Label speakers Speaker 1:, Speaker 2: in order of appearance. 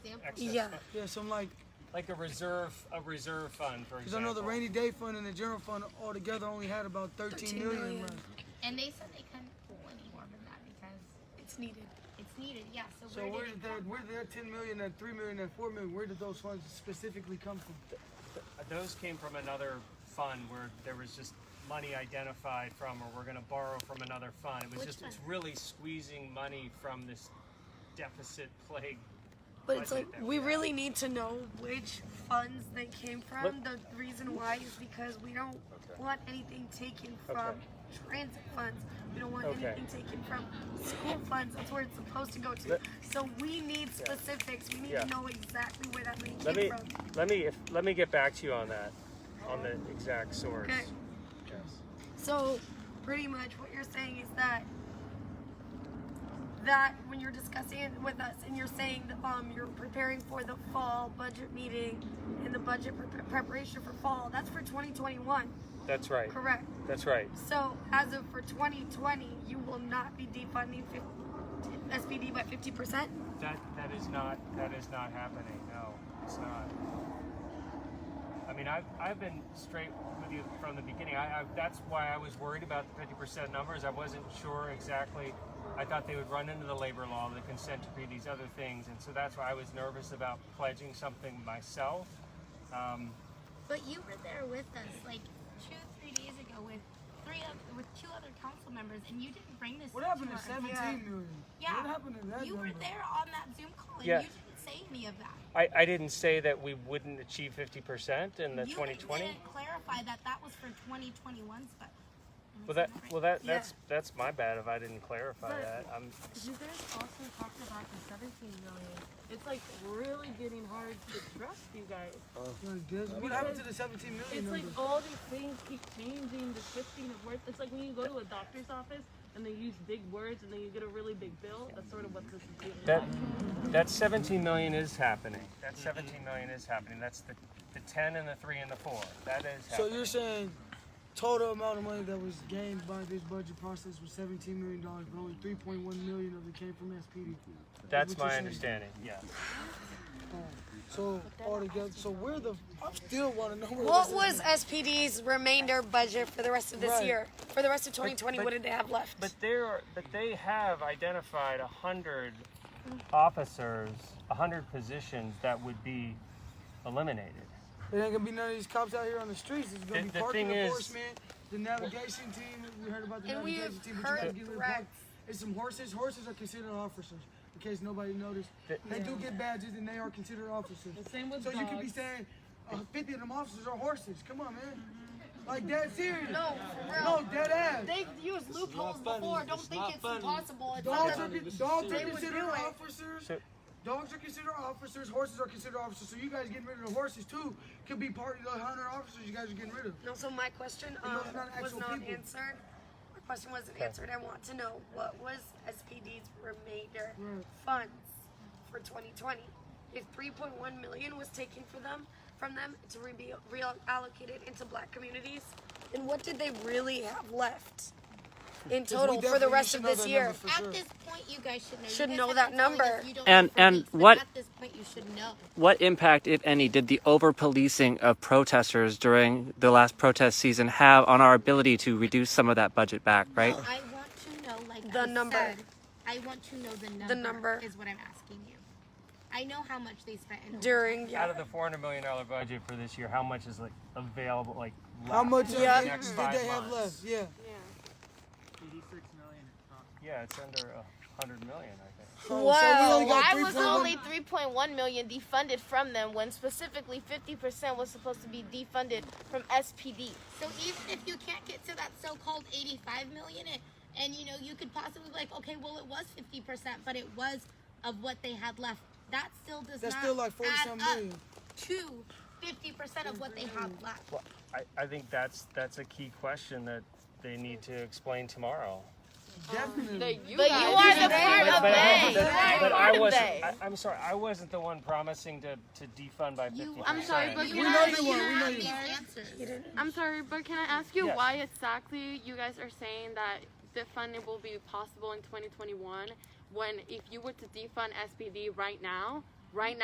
Speaker 1: excess.
Speaker 2: Yeah.
Speaker 1: fund.
Speaker 3: Yeah, some like,
Speaker 1: Like a reserve, a reserve fund, for example.
Speaker 3: because I know the rainy day fund and the general fund altogether only had about 13
Speaker 2: 13
Speaker 3: million.
Speaker 2: million.
Speaker 3: left.
Speaker 4: And they said they couldn't pull any more than that because
Speaker 2: It's needed.
Speaker 4: it's needed. Yeah. So,
Speaker 3: So
Speaker 4: where
Speaker 3: where
Speaker 4: did
Speaker 3: did
Speaker 4: it come
Speaker 3: that, where did that 10 million, that 3 million, that 4 million, where did those funds specifically come from?
Speaker 1: Uh, Those came from another fund where there was just money identified from, or we're gonna borrow from another fund. It was
Speaker 2: Which
Speaker 1: just, it's
Speaker 2: fund?
Speaker 1: really squeezing money from this deficit plague.
Speaker 2: But it's
Speaker 1: budget
Speaker 2: like
Speaker 1: that
Speaker 2: we
Speaker 1: have.
Speaker 2: really need to know which funds they came from. The reason why is because we don't want anything taken from transit funds. We don't want
Speaker 1: Okay.
Speaker 2: anything taken from school funds. That's where it's supposed to go to.
Speaker 1: Let-
Speaker 2: so we need specifics. We need
Speaker 1: Yeah.
Speaker 2: to know exactly where that money
Speaker 1: Let
Speaker 2: came
Speaker 1: me,
Speaker 2: from.
Speaker 1: let me, if, let me get back to you on that, on the exact source.
Speaker 2: Okay. So, pretty much what you're saying is that that when you're discussing it with us and you're saying that um, you're preparing for the fall budget meeting and the budget pre- preparation for fall, that's for 2021,
Speaker 1: That's right,
Speaker 2: correct?
Speaker 1: that's right.
Speaker 2: So, as of for 2020, you will not be defunding fif- SPD by 50%?
Speaker 1: That, that is not, that is not happening, no, it's not. I mean, I've, I've been straight with you from the beginning, I, I, that's why I was worried about the fifty percent numbers, I wasn't sure exactly. I thought they would run into the labor law, the consent decree, these other things, and so that's why I was nervous about pledging something myself. Um,
Speaker 4: But you were there with us like two, three days ago with three of, with two other council members, and you didn't bring this.
Speaker 3: What happened to
Speaker 4: us.
Speaker 3: 17
Speaker 2: Yeah.
Speaker 3: million?
Speaker 4: Yeah.
Speaker 3: What happened to that
Speaker 4: You were
Speaker 3: number?
Speaker 4: there on that Zoom call, and
Speaker 1: Yeah.
Speaker 4: you didn't say any of that.
Speaker 1: I, I didn't say that we wouldn't achieve fifty percent in the
Speaker 4: you
Speaker 1: twenty twenty.
Speaker 4: didn't clarify that that was for 2021 but
Speaker 1: Well, that well that
Speaker 2: Yeah.
Speaker 1: that's that's my bad if I didn't clarify
Speaker 5: But-
Speaker 1: that. I'm
Speaker 5: You guys also talked about the 17 million. It's like really getting hard to trust you guys.
Speaker 3: Like this? What happened to the 17 million
Speaker 5: It's
Speaker 3: number?
Speaker 5: like all these things keep changing, the shifting of words. It's like when you go to a doctor's office and they use big words and then you get a really big bill. That's sort of what this is doing.
Speaker 1: that that seventeen million is happening. That seventeen million is happening. That's the the ten and the three and the four. That is
Speaker 3: so
Speaker 1: happening.
Speaker 3: you're saying total amount of money that was gained by this budget process was 17 million dollars, but only 3.1 million of it came from SPD.
Speaker 1: that's
Speaker 3: what you're
Speaker 1: my
Speaker 3: saying.
Speaker 1: understanding. Yeah.
Speaker 3: So altogether, so where the I still want to know where
Speaker 2: What
Speaker 3: this
Speaker 2: was SPD's remainder budget for the rest of this
Speaker 3: Right.
Speaker 2: year? For the rest of 2020,
Speaker 1: but-
Speaker 2: what did they have left?
Speaker 1: But there are but they have identified a hundred officers, a hundred positions that would be eliminated.
Speaker 3: It ain't gonna be none of these cops out here on the streets. It's gonna
Speaker 1: The-
Speaker 3: be
Speaker 1: the
Speaker 3: parking
Speaker 1: thing is-
Speaker 3: enforcement, the navigation team. We heard about the
Speaker 2: And we
Speaker 3: navigation
Speaker 2: have
Speaker 3: team, but you gotta
Speaker 2: heard
Speaker 3: get rid of
Speaker 2: threats.
Speaker 3: park- It's some horses. Horses are considered officers. In case nobody noticed,
Speaker 1: The-
Speaker 3: they do get badges and they are considered officers.
Speaker 5: The same with
Speaker 3: So you could be
Speaker 5: dogs.
Speaker 3: saying, uh, 50 of them officers are horses. Come on, man. Like dead serious.
Speaker 2: no, for real.
Speaker 3: No, dead ass.
Speaker 2: They've used loopholes before. Don't think it's impossible. It's
Speaker 3: Dogs are,
Speaker 2: not
Speaker 3: con- dogs are
Speaker 2: They would
Speaker 3: considered
Speaker 2: do it.
Speaker 3: officers.
Speaker 1: So-
Speaker 3: Dogs are considered officers. Horses are considered officers. So you guys getting rid of the horses too? Could be part of the hundred officers you guys are getting rid of.
Speaker 2: No, so my question
Speaker 3: And
Speaker 2: um,
Speaker 3: those are not
Speaker 2: was
Speaker 3: actual
Speaker 2: not
Speaker 3: people.
Speaker 2: answered. My question wasn't answered. I want to know what was SPD's remainder
Speaker 3: Right.
Speaker 2: funds for 2020? If 3.1 million was taken for them from them to be reallocated into black communities, then what did they really have left in total for the
Speaker 3: definitely
Speaker 2: rest
Speaker 3: should
Speaker 2: of
Speaker 3: know
Speaker 2: this
Speaker 3: that
Speaker 2: year?
Speaker 3: number for
Speaker 4: at
Speaker 3: sure.
Speaker 4: this point you guys should know You
Speaker 2: Should
Speaker 4: guys
Speaker 2: know
Speaker 4: have
Speaker 2: that
Speaker 4: been telling us
Speaker 2: number.
Speaker 4: you don't
Speaker 6: And-
Speaker 4: know for
Speaker 6: and
Speaker 4: weeks, but
Speaker 6: what-
Speaker 4: at this point you should know
Speaker 6: What impact, if any, did the over policing of protesters during the last protest season have on our ability to reduce some of that budget back, right?
Speaker 4: i want to know like
Speaker 2: The
Speaker 4: I
Speaker 2: number.
Speaker 4: said, i want to know the number
Speaker 2: number.
Speaker 4: is what i'm asking you i know how much they spent in
Speaker 2: During yeah.
Speaker 1: Out of the four hundred million dollar budget for this year, how much is like available like
Speaker 3: How
Speaker 1: left
Speaker 3: much
Speaker 1: for
Speaker 3: of
Speaker 1: the
Speaker 3: yeah.
Speaker 1: next
Speaker 3: did
Speaker 1: five
Speaker 3: they have
Speaker 1: months?
Speaker 3: left? Yeah.
Speaker 1: Yeah, it's under a hundred million, I think.
Speaker 3: So, so we
Speaker 7: Well,
Speaker 3: only got
Speaker 7: I was
Speaker 3: 3.1
Speaker 7: only 3.1 million defunded from them when specifically 50% was supposed to be defunded from SPD.
Speaker 4: so even if you can't get to that so-called 85 million and, and you know you could possibly be like okay well it was 50 percent but it was of what they had left that still does
Speaker 3: That's
Speaker 4: not
Speaker 3: still like 40
Speaker 4: add
Speaker 3: some
Speaker 4: up
Speaker 3: million.
Speaker 4: to 50 percent of what they have left
Speaker 1: Well, I, I think that's that's a key question that they need to explain tomorrow.
Speaker 3: Definitely.
Speaker 7: but you are the part of
Speaker 1: But,
Speaker 7: they.
Speaker 1: I, but
Speaker 7: You're
Speaker 1: I
Speaker 7: part of
Speaker 1: wasn't.
Speaker 7: they.
Speaker 1: I, I'm sorry, I wasn't the one promising to, to defund by fifty.
Speaker 4: You-
Speaker 8: I'm sorry, but
Speaker 4: You
Speaker 3: We
Speaker 8: can
Speaker 3: know
Speaker 4: have-
Speaker 8: I,
Speaker 3: they were. We know
Speaker 4: have
Speaker 3: you.
Speaker 4: these answers.
Speaker 8: I'm sorry, but can I ask you
Speaker 1: Yes.
Speaker 8: why exactly you guys are saying that defunding will be possible in 2021 when if you were to defund SPD right now, right now.